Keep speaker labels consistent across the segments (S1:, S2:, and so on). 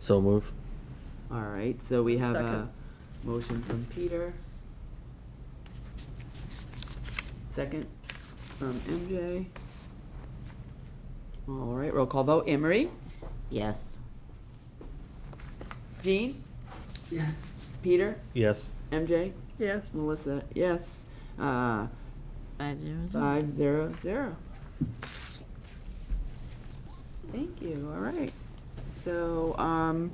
S1: So move.
S2: All right, so we have a
S3: Second.
S2: motion from Peter. Second from MJ. All right, roll call vote. Emery?
S4: Yes.
S2: Jean?
S4: Yes.
S2: Peter?
S1: Yes.
S2: MJ?
S3: Yes.
S2: Melissa? Yes. Uh,
S4: Five zero zero.
S2: Five zero zero. Thank you, all right. So, um,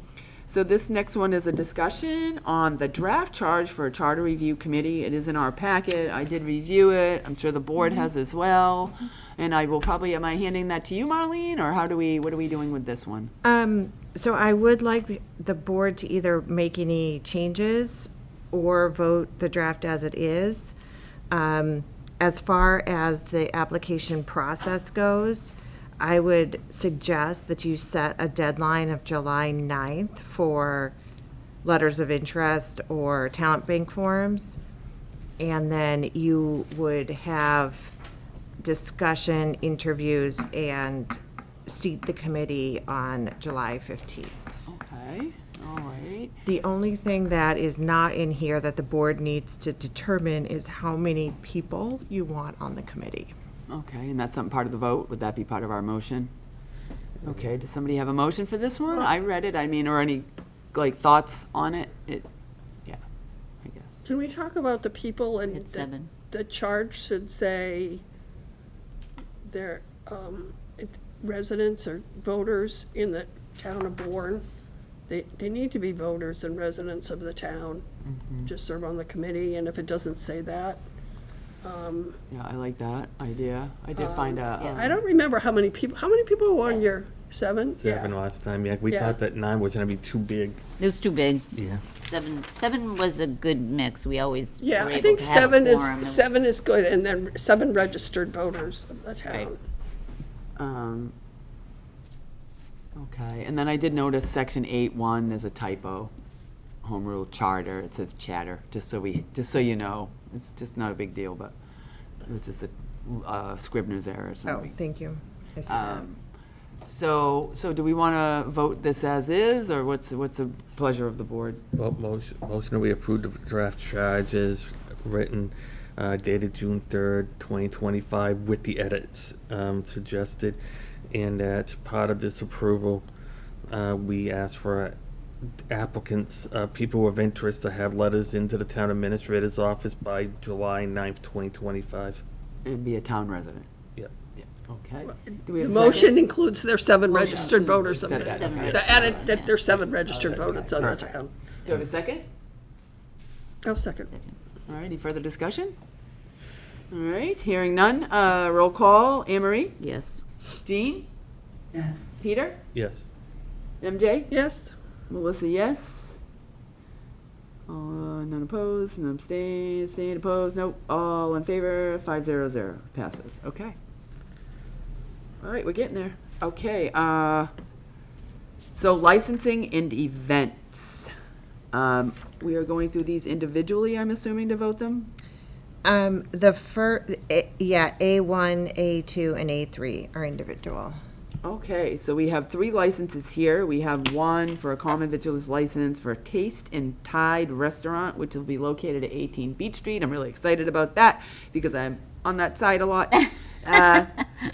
S2: so this next one is a discussion on the draft charge for a charter review committee. It is in our packet, I did review it, I'm sure the board
S4: Mm-hmm.
S2: has as well. And I will probably, am I handing that to you, Marlene, or how do we, what are we doing with this one?
S5: Um, so I would like the- the board to either make any changes or vote the draft as it is. Um, as far as the application process goes, I would suggest that you set a deadline of July 9th for letters of interest or talent bank forms. And then you would have discussion, interviews, and seat the committee on July 15th.
S2: Okay, all right.
S5: The only thing that is not in here that the board needs to determine is how many people you want on the committee.
S2: Okay, and that's some part of the vote, would that be part of our motion? Okay, does somebody have a motion for this one? I read it, I mean, or any, like, thoughts on it? It, yeah, I guess.
S3: Can we talk about the people and?
S4: It's
S3: the-
S4: seven.
S3: The charge should say they're um, it- residents or voters in the town of Bourne. They, they need to be voters and residents of the town, just serve on the committee, and if it doesn't say that, um,
S2: Yeah, I like that idea. I did find
S3: I
S2: a,
S3: don't remember how many people, how many people were on your, seven?
S1: Seven
S3: Yeah.
S1: last time, yeah, we
S3: Yeah.
S1: thought that nine was gonna be too big.
S4: It was too big.
S1: Yeah.
S4: Seven, seven was a good mix. We always were
S3: Yeah, I
S4: able
S3: think
S4: to have a
S3: seven
S4: quorum. It
S3: is,
S4: was-
S3: seven is good, and then seven registered voters of the town.
S2: um, okay, and then I did notice section eight one, there's a typo. Home rule charter, it says chatter, just so we, just so you know, it's just not a big deal, but it was just a, uh, scrivener's error or
S5: Oh,
S2: something.
S5: thank you. I see that.
S2: Um, So, so do we want to vote this as is, or what's, what's the pleasure of the board?
S1: Well, Oh, motion, motion that we approved the draft charge is written, uh, dated June third, twenty twenty-five, with the edits, um, suggested. And as part of this approval, uh, we asked for applicants, uh, people of interest to have letters into the town administrator's office by July ninth, twenty twenty-five.
S2: It'd be a town resident.
S1: Yep.
S2: Yeah, Okay. Do we
S3: The
S2: have a
S3: motion
S2: second?
S3: includes their seven registered voters of the,
S2: Seven registered
S3: the added, that there's seven registered voters on the
S2: Perfect.
S3: town.
S2: Do we have a second?
S3: Oh, second.
S2: All right, any further discussion? All right, hearing none, uh, roll call, Emery,
S4: Yes.
S2: Jean?
S4: Yes.
S2: Peter?
S1: Yes.
S2: MJ?
S3: Yes,
S2: Melissa, yes. Uh, none opposed, none abstained, abstained, opposed, nope, all in favor, five zero zero, passes, okay. All right, we're getting there, okay, uh, so licensing and events. Um, we are going through these individually, I'm assuming, to vote them?
S5: Um, the fir, eh, yeah, A1, A2, and A3 are individual.
S2: Okay, so we have three licenses here. We have one for a common vigilance license for Taste and Tide Restaurant, which will be located at 18 Beach Street. I'm really excited about that because I'm on that side a lot. Uh,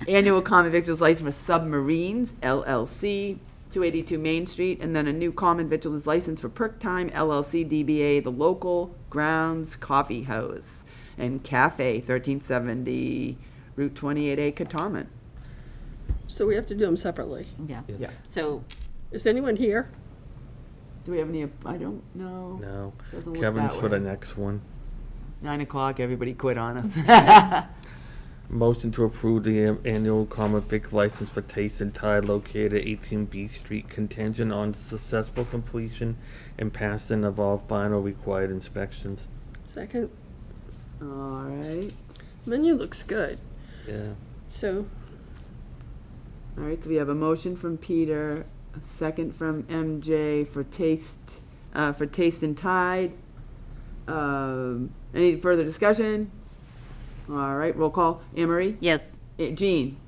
S2: Annual common vigilance license for Submarines LLC, 282 Main Street, and then a new common vigilance license for Perk Time LLC DBA The Local Grounds Coffee House and Cafe, 1370 Route 28A, Katamit.
S3: so we have to do them separately.
S4: Yeah.
S2: Yeah.
S4: So,
S3: Is anyone here?
S2: Do we have any, I don't know.
S1: No.
S2: Doesn't look
S1: Kevin's
S2: that
S1: for the
S2: way.
S1: next one.
S2: Nine o'clock, everybody quit on us.
S1: Motion to approve the um, annual common vic license for Taste and Tide located at 18 B Street contingent on successful completion and passing of all final required inspections.
S3: Second,
S2: All right,
S3: menu looks good,
S1: Yeah.
S3: so,
S2: all right, so we have a motion from Peter, a second from MJ for taste, uh, for taste and tide. Um, any further discussion? All right, roll call, Emery,
S4: yes.
S2: Eh, Jean?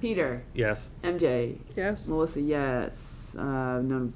S2: Peter,
S1: Yes.
S2: MJ,
S3: yes?
S2: Melissa, yes. Uh, none